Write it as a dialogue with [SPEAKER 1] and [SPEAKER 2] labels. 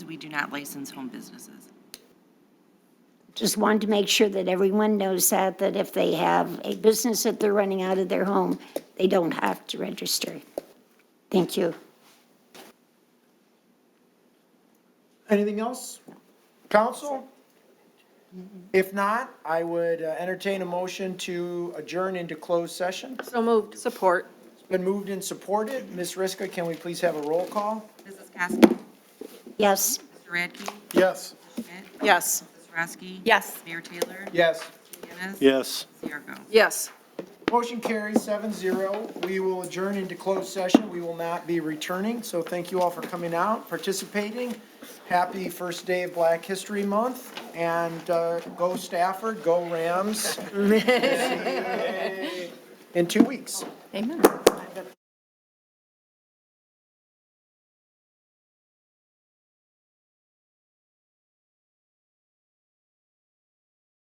[SPEAKER 1] we do not license home businesses.
[SPEAKER 2] Just wanted to make sure that everyone knows that, that if they have a business that they're running out of their home, they don't have to register. Thank you.
[SPEAKER 3] Anything else? Council? If not, I would uh, entertain a motion to adjourn into closed session.
[SPEAKER 4] So moved. Support.
[SPEAKER 3] It's been moved and supported. Ms. Riska, can we please have a roll call?
[SPEAKER 1] Mrs. Kosky,
[SPEAKER 2] Yes?
[SPEAKER 1] Mr. Radke,
[SPEAKER 3] Yes.
[SPEAKER 1] Schmidt,
[SPEAKER 4] Yes.
[SPEAKER 1] Rosky.
[SPEAKER 4] Yes.
[SPEAKER 1] Mayor Taylor.
[SPEAKER 3] Yes.
[SPEAKER 1] Yanis.
[SPEAKER 5] Yes.
[SPEAKER 1] Cierko.
[SPEAKER 4] Yes.
[SPEAKER 3] Motion carries seven zero. We will adjourn into closed session. We will not be returning, so thank you all for coming out, participating. Happy first day of Black History Month, and uh, go Stafford, go Rams. See you In two weeks.
[SPEAKER 4] Amen.